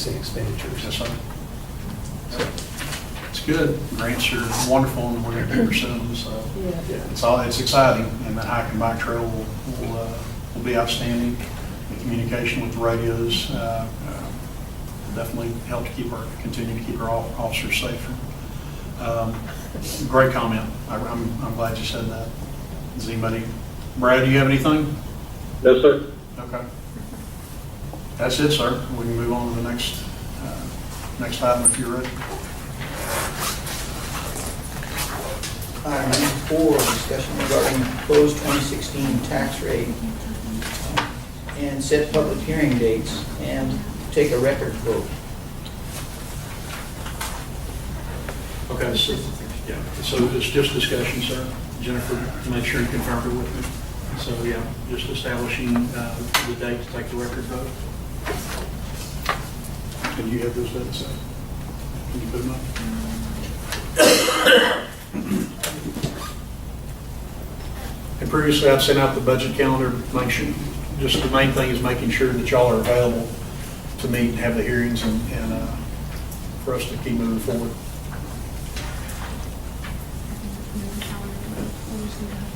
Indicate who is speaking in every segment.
Speaker 1: say expenditures.
Speaker 2: Yes, sir. It's good. Grants are wonderful and we're going to pursue them, so
Speaker 1: Yeah.
Speaker 2: it's all, it's exciting. And that hike and bike trail will, will, uh, will be outstanding. The communication with the radios, uh, uh, definitely help to keep our, continue to keep our off- officers safer. Um, Great comment. I- I'm, I'm glad you said that. Does anybody, Brad, do you have anything?
Speaker 3: No, sir.
Speaker 2: Okay. That's it, sir. We can move on to the next, uh, next item if you're ready.
Speaker 4: Item number four, discussion regarding proposed 2016 tax rate um, and set public hearing dates and take a record vote.
Speaker 2: Okay, so, yeah, so it's just discussion, sir. Jennifer, make sure you confirm it with me. So, yeah, just establishing uh, the date to take the record vote. And you have those dates, sir? Can you put them up? And previously, I've sent out the budget calendar, make sure, just the main thing is making sure that y'all are available to meet and have the hearings and, and uh, for us to keep moving forward.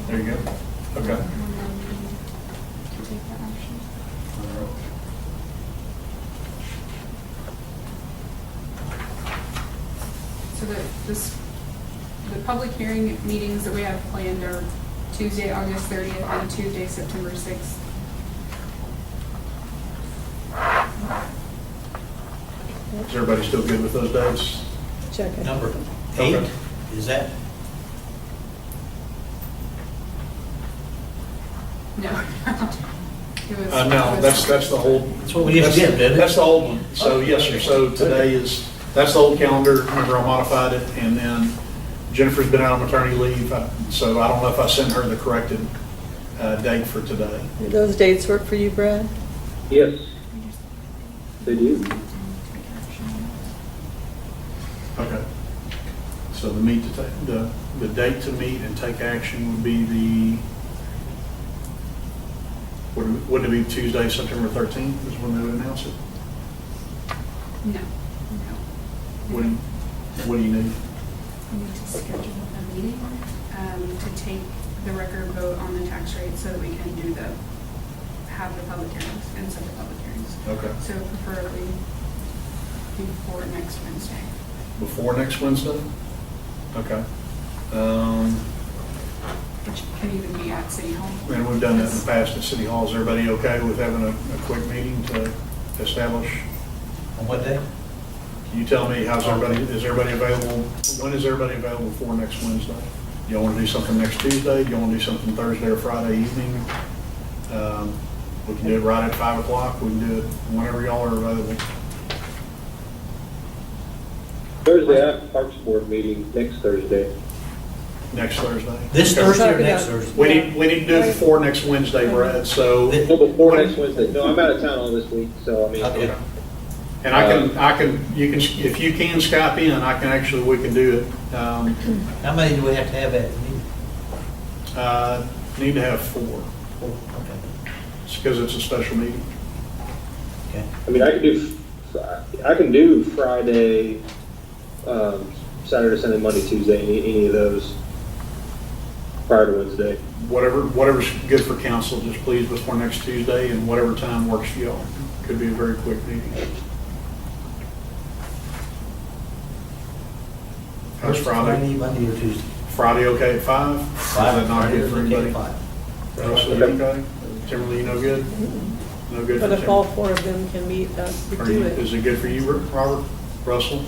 Speaker 2: There you go. Okay.
Speaker 5: So the, this, the public hearing meetings that we have planned are Tuesday, August 30th, and Tuesday, September 6th.
Speaker 2: Is everybody still good with those dates?
Speaker 6: Check it.
Speaker 7: Number eight,
Speaker 2: Okay.
Speaker 7: is that?
Speaker 5: No. It was-
Speaker 2: Uh, no, that's, that's the whole.
Speaker 7: That's what we used to get, didn't it?
Speaker 2: That's the old one. So, yes, sir. So today is, that's the old calendar. Remember, I modified it. And then Jennifer's been out on maternity leave, uh, so I don't know if I sent her the corrected uh, date for today.
Speaker 6: Do Those dates work for you, Brad?
Speaker 3: Yes, they do.
Speaker 2: Okay. So the meet to take, the, the date to meet and take action would be the, wouldn't it- wouldn't it be Tuesday, September 13th is when they would announce it?
Speaker 5: No, no.
Speaker 2: What do you, what do you need?
Speaker 5: We need to schedule a meeting um, to take the record vote on the tax rate so that we can do the, have the public hearings and set the public hearings.
Speaker 2: Okay.
Speaker 5: So preferably before next Wednesday.
Speaker 2: Before next Wednesday? Okay. Um,
Speaker 5: Which can even be at City Hall.
Speaker 2: And we've done that in the past at City Hall. Is everybody okay with having a, a quick meeting to establish?
Speaker 7: On what day?
Speaker 2: Can you tell me, how's everybody, is everybody available? When is everybody available for next Wednesday? Y'all want to do something next Tuesday? Y'all want to do something Thursday or Friday evening? Um, We can do it right at 5 o'clock. We can do it whenever y'all are available.
Speaker 3: Thursday, I have Parks Board meeting next Thursday.
Speaker 2: Next Thursday?
Speaker 7: This
Speaker 2: Okay.
Speaker 7: Thursday or
Speaker 6: Talking
Speaker 7: next
Speaker 6: about-
Speaker 7: Thursday?
Speaker 2: We need, we need to do it before next Wednesday, Brad, so.
Speaker 7: Thi-
Speaker 3: No, before next Wednesday. No, I'm out of town all this week, so I mean,
Speaker 7: Okay.
Speaker 2: And I can, I can, you can, if you can Skype in, I can actually, we can do it. Um,
Speaker 7: How many do we have to have at the meeting?
Speaker 2: uh, Need to have four,
Speaker 7: Oh, okay.
Speaker 2: It's because it's a special meeting.
Speaker 7: Okay.
Speaker 3: I mean, I can do, Fri- I can do Friday, um, Saturday, Sunday, Monday, Tuesday, any, any of those prior to Wednesday.
Speaker 2: Whatever, whatever's good for council, just please before next Tuesday and whatever time works for y'all. Could be a very quick meeting. How's Friday?
Speaker 7: Monday or Tuesday?
Speaker 2: Friday okay at five? Is that not
Speaker 7: Friday
Speaker 2: good
Speaker 7: or
Speaker 2: for
Speaker 7: Monday at
Speaker 2: anybody?
Speaker 7: five.
Speaker 2: Russell, you okay? Timberly, you no good? No good for
Speaker 6: But if
Speaker 2: Timberly?
Speaker 6: all four of them can meet, uh, we
Speaker 2: Are
Speaker 6: do
Speaker 2: you-
Speaker 6: it.
Speaker 2: Is it good for you, Robert, Russell?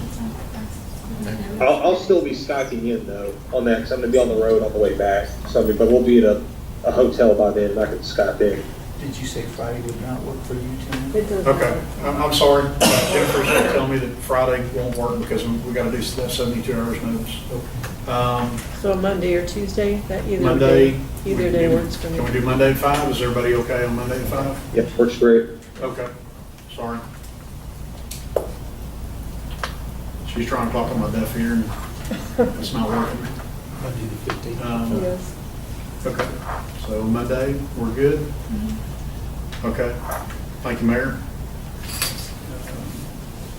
Speaker 3: I'll, I'll still be Skyping in though on that, because I'm gonna be on the road on the way back. So I mean, but we'll be at a, a hotel by then, and I can Skype in.
Speaker 4: Did you say Friday would not work for you, Tim?
Speaker 6: It doesn't-
Speaker 2: Okay, I'm, I'm sorry, Uh, Jennifer's gonna tell me that Friday won't work because we gotta do that seventy-two hours notice. Um,
Speaker 6: So Monday or Tuesday, that either. day-
Speaker 2: Monday.
Speaker 6: Either day works for me.
Speaker 2: Can we do Monday at five? Is everybody okay on Monday at five?
Speaker 3: Yep, works great.
Speaker 2: Okay, sorry. She's trying to talk on my deaf ear and it's not working.
Speaker 7: Monday the fifteenth.
Speaker 2: Um,
Speaker 6: Yes.
Speaker 2: Okay, so Monday, we're good? Okay, thank you, Mayor.